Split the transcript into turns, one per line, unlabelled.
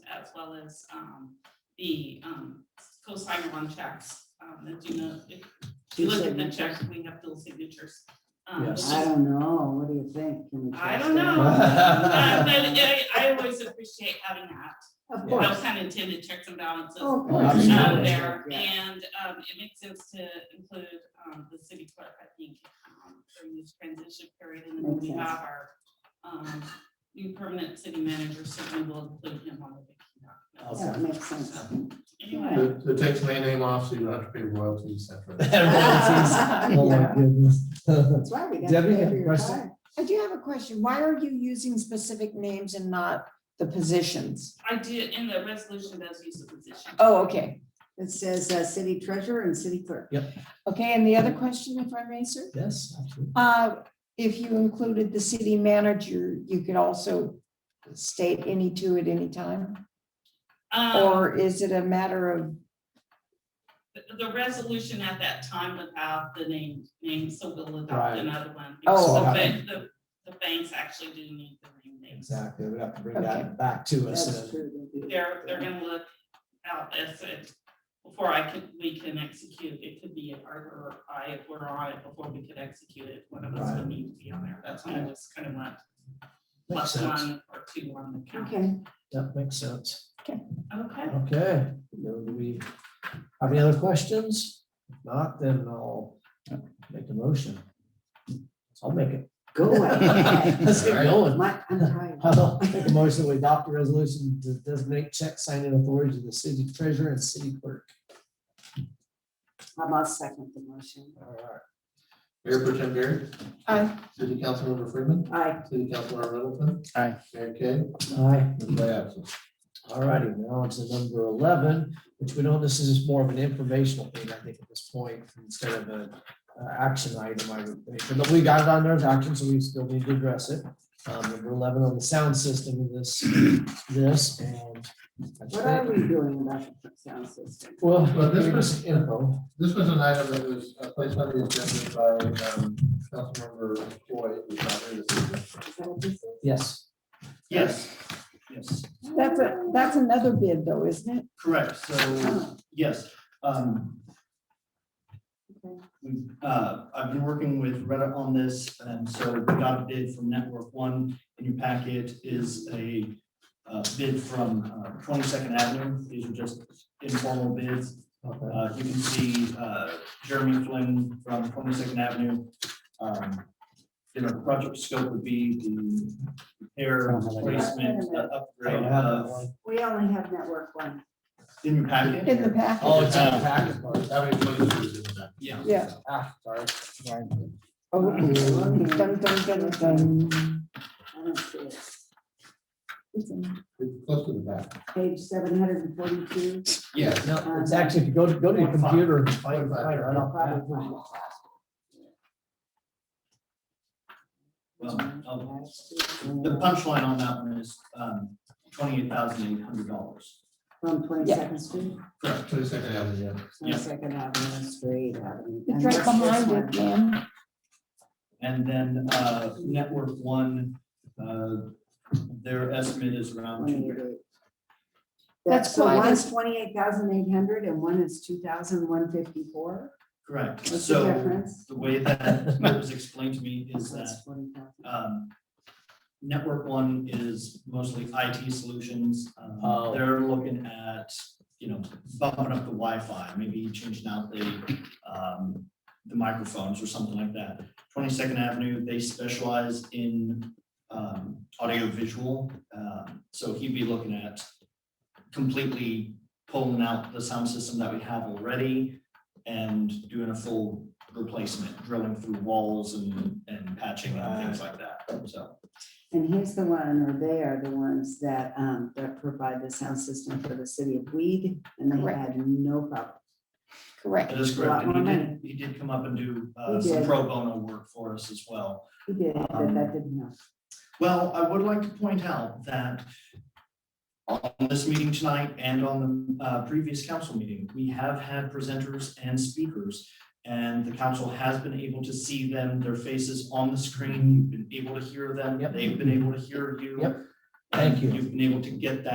as well as um, the um, cosigner on checks. um, That you know, if you look at the check, we have dual signatures. Um,
Yes.
it's
I
just-
don't know, what do you think? Can we
I
trust
don't
that?
know. Uh, But I I always appreciate having that.
Yeah.
Of course.
Those kind of tended checks and balances
Oh, of
Oh,
course.
absolutely.
out there,
Yeah.
and um, it makes sense to include um, the city clerk, I think, um, during this transition period, and then
Makes
we
sense.
have our um, new permanent city manager, certainly will include him on the big document.
That makes sense.
Anyway,
That that takes my name off, so you don't have to pay royalties, et cetera.
Oh my
Yeah.
goodness.
That's why we got to
Debbie,
pay
have
for
a
your
question?
time. I do have a question. Why are you using specific names and not the positions?
I did, and the resolution does use the position.
Oh, okay. It says uh, city treasurer and city clerk.
Yep.
Okay, and the other question, if I may, sir?
Yes, absolutely.
Uh, If you included the city manager, you could also state any two at any time?
Um,
Or is it a matter of,
the- The resolution at that time would have the name, name, so we'll adopt
Right.
another one.
Oh,
because the
okay.
bank- The the banks actually do need the name names.
Exactly. We'd have to bring
Okay.
that back to us. and-
They're, they're gonna look out this, it- before I can, we can execute, it could be Arthur or I, if we're on it, before we could execute it, one of us would
Right.
need to be on there, that's why I was kind of like
Makes
plus
sense.
one or two on the count.
okay,
That makes sense.
Okay,
Okay, now do we have any other questions? If Not, then I'll make a motion. I'll make it.
go away.
Let's get going.
My- I'm tired.
I'll make a motion to adopt a resolution to designate check signing authority to the city treasurer and city clerk.
I must second the motion.
All right.
Mayor Pro Tem Gary,
Aye.
City Councilmember Freeman,
Aye.
City Councilmember Middleton.
Aye.
Mayor Kay,
Aye.
and by absent.
All righty, now on to number eleven, which we know this is more of an informational thing, I think, at this point, instead of a uh, action item, I would think. But we got it on there as action, so we still need to address it. Um, number eleven on the sound system of this, this and. I
What are
think-
we doing about the sound system?
Well,
Well, this
this
was-
was info.
This was an item that was uh, placed on the agenda by um, Councilmember Floyd, who's not here this evening.
Is that what this is?
Yes.
Yes, yes,
That's a, that's another bid though, isn't it?
correct. So,
Oh,
yes. um,
Okay.
we- uh, I've been working with Reddit on this, and so we got a bid from Network One. In your packet is a uh, bid from Twenty-second Avenue. These are just informal bids.
Okay.
Uh, you can see, uh, Jeremy Flynn from Twenty-second Avenue. um, You know, project scope would be the repair, replacement, uh, upgrade of,
We only have network one.
in your packet.
In the packet.
Oh, it's on the packet part.
How many places is that?
Yeah.
Yeah.
Ah, sorry. Sorry.
Oh, Okay. Dun, dun, dun, dun. I don't see it. It's in
It's Close to the back.
Page seven hundred and forty-two.
Yeah.
No, it's actually, if you go to, go to your computer.
Five, five.
Right, right off that.
Well, I'll- The punchline on that one is, um, twenty-eight thousand eight hundred dollars.
From Twenty-second Street?
Correct, twenty-second Avenue, yeah.
Yeah.
Twenty-second Avenue, Street Avenue.
It's right behind it, man.
And then, uh, Network One, uh, their estimate is around two grand.
That's
That's, so
quite a-
one's twenty-eight thousand eight hundred and one is two thousand one fifty-four.
Correct,
What's the
so
difference?
the way that it was explained to me is that
That's 40,000.
Um, Network one is mostly IT solutions. Um,
Oh.
They're looking at, you know, bumping up the Wi-Fi, maybe changing out the, um, the microphones or something like that. Twenty-second Avenue, they specialize in, um, audio visual. Um, so he'd be looking at completely pulling out the sound system that we have already and doing a full replacement, drilling through walls and, and patching and things like that, so.
And he's the one, or they are the ones that, um, that provide the sound system for the city of Weed, and they
Correct.
had no problem.
Correct.
That is correct, and he did, he did come up and do, uh,
He
some
did.
pro bono work for us as well.
He did, but
Um,
that didn't help.
Well, I would like to point out that on this meeting tonight and on the uh, previous council meeting, we have had presenters and speakers. And the council has been able to see them, their faces on the screen, You've been able to hear them,
Yep.
they've been able to hear you.
Yep. Thank you.
You've been able to get that